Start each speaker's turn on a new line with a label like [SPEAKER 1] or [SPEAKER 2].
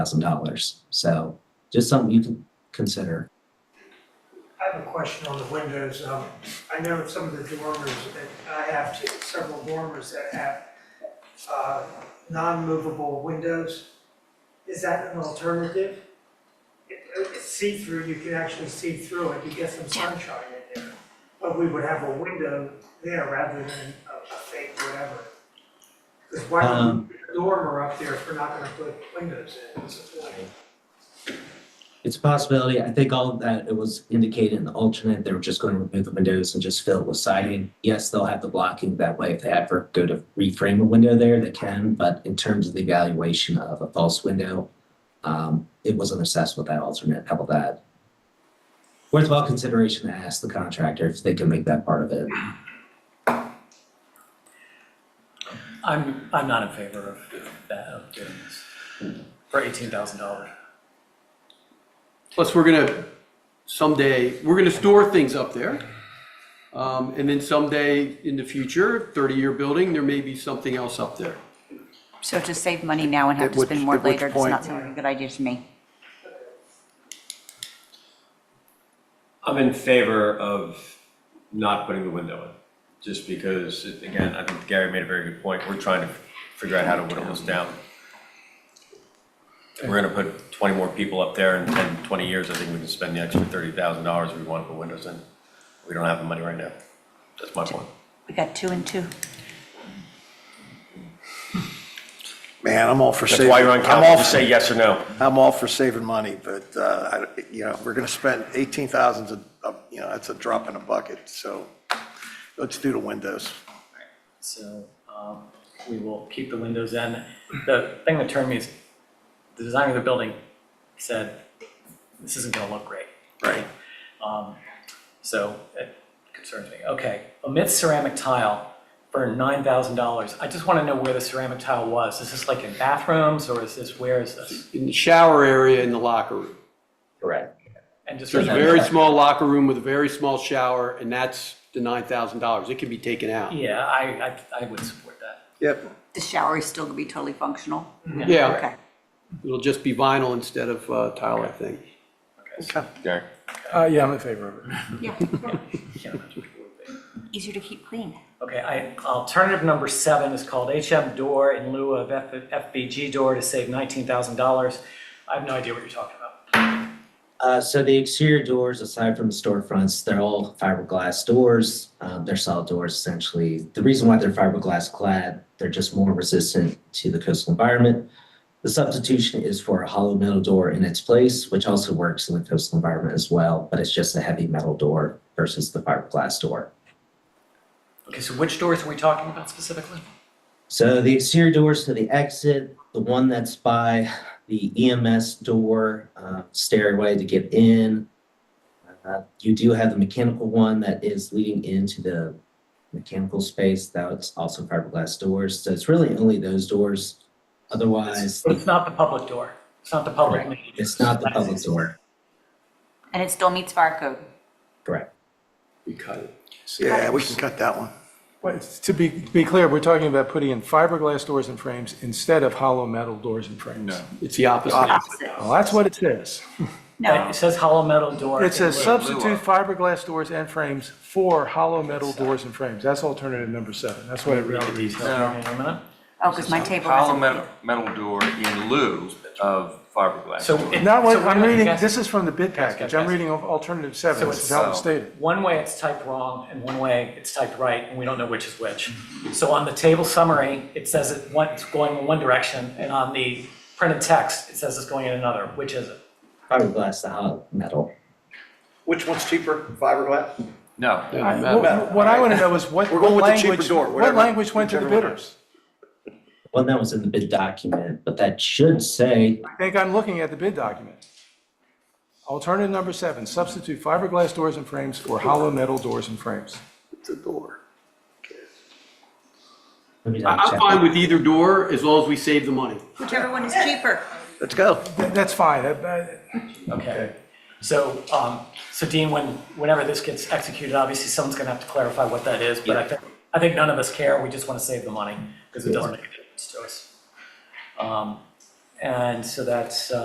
[SPEAKER 1] thousand dollars. So just something you can consider.
[SPEAKER 2] I have a question on the windows. Um, I know some of the dormers, that I have two- several dormers that have uh, non-movable windows. Is that an alternative? It- It's see-through, you can actually see through it, you get some sunshine in there. But we would have a window there rather than a a fake whatever. Because why would
[SPEAKER 1] Um,
[SPEAKER 2] we put a dormer up there if we're not gonna put windows in? What's the point?
[SPEAKER 1] It's a possibility. I think all of that it was indicated in the alternate. They were just going to remove the windows and just fill it with siding. Yes, they'll have the blocking that way. If they ever go to reframe a window there, they can. But in terms of the evaluation of a false window, um, it wasn't assessed with that alternate. How about that? Worthwhile consideration to ask the contractor if they can make that part of it.
[SPEAKER 3] I'm, I'm not in favor of that, of doing this, for eighteen thousand dollars.
[SPEAKER 4] Plus, we're gonna someday, we're gonna store things up there. Um, and then someday in the future, thirty-year building, there may be something else up there.
[SPEAKER 5] So to save money now and have
[SPEAKER 4] At
[SPEAKER 5] to spend
[SPEAKER 4] which-
[SPEAKER 5] more
[SPEAKER 4] at which
[SPEAKER 5] later does
[SPEAKER 4] point-
[SPEAKER 5] not sound like a good idea to me.
[SPEAKER 6] I'm in favor of not putting the window in, just because, it- again, I think Gary made a very good point, we're trying to figure out how to whittle this down. We're gonna put twenty more people up there in 10, 20 years, I think we can spend the extra thirty thousand dollars if we want to put windows in. We don't have the money right now, that's my point.
[SPEAKER 5] We got two and two.
[SPEAKER 7] Man, I'm all for
[SPEAKER 6] That's
[SPEAKER 7] saving.
[SPEAKER 6] why you're on
[SPEAKER 7] I'm all
[SPEAKER 6] council,
[SPEAKER 7] for-
[SPEAKER 6] just say yes or no.
[SPEAKER 7] I'm all for saving money, but, uh, I, you know, we're gonna spend eighteen thousands a, a- you know, that's a drop in a bucket, so let's do the windows.
[SPEAKER 3] So, um, we will keep the windows in. The thing that turned me is, the designer of the building said, this isn't gonna look great.
[SPEAKER 7] Right.
[SPEAKER 3] Um, so it concerns me. Okay, omit ceramic tile for nine thousand dollars. I just wanna know where the ceramic tile was. Is this like in bathrooms or is this, where is this?
[SPEAKER 4] In the shower area in the locker room.
[SPEAKER 1] Correct.
[SPEAKER 3] And just.
[SPEAKER 4] There's a very small locker room with a very small shower, and that's the nine thousand dollars. It can be taken out.
[SPEAKER 3] Yeah, I, I, I would support that.
[SPEAKER 7] Yep.
[SPEAKER 5] The shower is still gonna be totally functional.
[SPEAKER 4] Yeah,
[SPEAKER 5] Okay.
[SPEAKER 4] it'll just be vinyl instead of uh, tile, I think.
[SPEAKER 6] Gary?
[SPEAKER 8] Uh, yeah, I'm in favor of it.
[SPEAKER 5] Yeah.
[SPEAKER 3] Yeah, that's what it would be.
[SPEAKER 5] Easier to keep clean.
[SPEAKER 3] Okay, I, alternative number seven is called HM door in lieu of F- FBG door to save nineteen thousand dollars. I have no idea what you're talking about.
[SPEAKER 1] Uh, so the exterior doors, aside from the storefronts, they're all fiberglass doors. Um, they're solid doors essentially. The reason why they're fiberglass clad, they're just more resistant to the coastal environment. The substitution is for a hollow metal door in its place, which also works in the coastal environment as well, but it's just a heavy metal door versus the fiberglass door.
[SPEAKER 3] Okay, so which doors are we talking about specifically?
[SPEAKER 1] So the exterior doors to the exit, the one that's by the EMS door, uh, stairway to get in. Uh, you do have the mechanical one that is leading into the mechanical space. That's also fiberglass doors. So it's really only those doors. Otherwise,
[SPEAKER 3] It's not the public door. It's not the public.
[SPEAKER 1] Correct.
[SPEAKER 3] main
[SPEAKER 1] it's not the public door.
[SPEAKER 5] And it still meets fire code.
[SPEAKER 1] Correct.
[SPEAKER 4] We cut it.
[SPEAKER 7] Yeah, we can cut that one.
[SPEAKER 8] But to be, be clear, we're talking about putting in fiberglass doors and frames instead of hollow metal doors and frames. No.
[SPEAKER 4] It's the opposite.
[SPEAKER 5] Opposite.
[SPEAKER 8] Well, that's what it says.
[SPEAKER 3] But
[SPEAKER 5] No,
[SPEAKER 3] It says hollow metal door.
[SPEAKER 8] It says
[SPEAKER 3] in lieu.
[SPEAKER 8] substitute fiberglass doors and frames for hollow metal doors and frames. That's alternative number seven. That's what it
[SPEAKER 3] Read the
[SPEAKER 8] really reads.
[SPEAKER 3] details here in a minute.
[SPEAKER 5] oh, because my table
[SPEAKER 9] Hollow
[SPEAKER 5] has
[SPEAKER 9] metal, metal door in lieu of fiberglass.
[SPEAKER 3] So.
[SPEAKER 9] door.
[SPEAKER 3] it-
[SPEAKER 8] Not what,
[SPEAKER 3] so
[SPEAKER 8] I'm
[SPEAKER 3] wait,
[SPEAKER 8] reading,
[SPEAKER 3] guys,
[SPEAKER 8] this is from the bid package. I'm
[SPEAKER 3] guys.
[SPEAKER 8] reading al- alternative seven.
[SPEAKER 3] So
[SPEAKER 8] This is
[SPEAKER 3] it's-
[SPEAKER 8] how it's stated.
[SPEAKER 3] One way it's typed wrong, and one way it's typed right, and we don't know which is which. So on the table summary, it says it one- it's going in one direction, and on the printed text, it says it's going in another. Which is it?
[SPEAKER 1] Fiberglass, the hollow metal.
[SPEAKER 7] Which one's cheaper, fiberglass?
[SPEAKER 9] No,
[SPEAKER 4] Yeah,
[SPEAKER 8] I-
[SPEAKER 4] metal.
[SPEAKER 8] What what I want to know is what
[SPEAKER 7] We're going
[SPEAKER 8] what
[SPEAKER 7] with the cheaper
[SPEAKER 8] language,
[SPEAKER 7] door,
[SPEAKER 8] what
[SPEAKER 7] whatever-
[SPEAKER 8] language went to the
[SPEAKER 7] whichever one.
[SPEAKER 8] bidders?
[SPEAKER 1] Well, that was in the bid document, but that should say
[SPEAKER 8] I think I'm looking at the bid document. Alternative number seven, substitute fiberglass doors and frames for hollow metal doors and frames.
[SPEAKER 7] It's a door.
[SPEAKER 1] let me
[SPEAKER 4] I-
[SPEAKER 1] double
[SPEAKER 4] I'm
[SPEAKER 1] check.
[SPEAKER 4] fine with either door as long as we save the money.
[SPEAKER 5] whichever one is cheaper.
[SPEAKER 7] Let's go.
[SPEAKER 8] Th- That's fine. Uh, That- that-
[SPEAKER 3] Okay. So, um, so Dean, when, whenever this gets executed, obviously someone's gonna have to clarify what that is, but I think, I think none of us care, we just wanna save the money, because it doesn't make a difference to us. Um, And so that's, uh,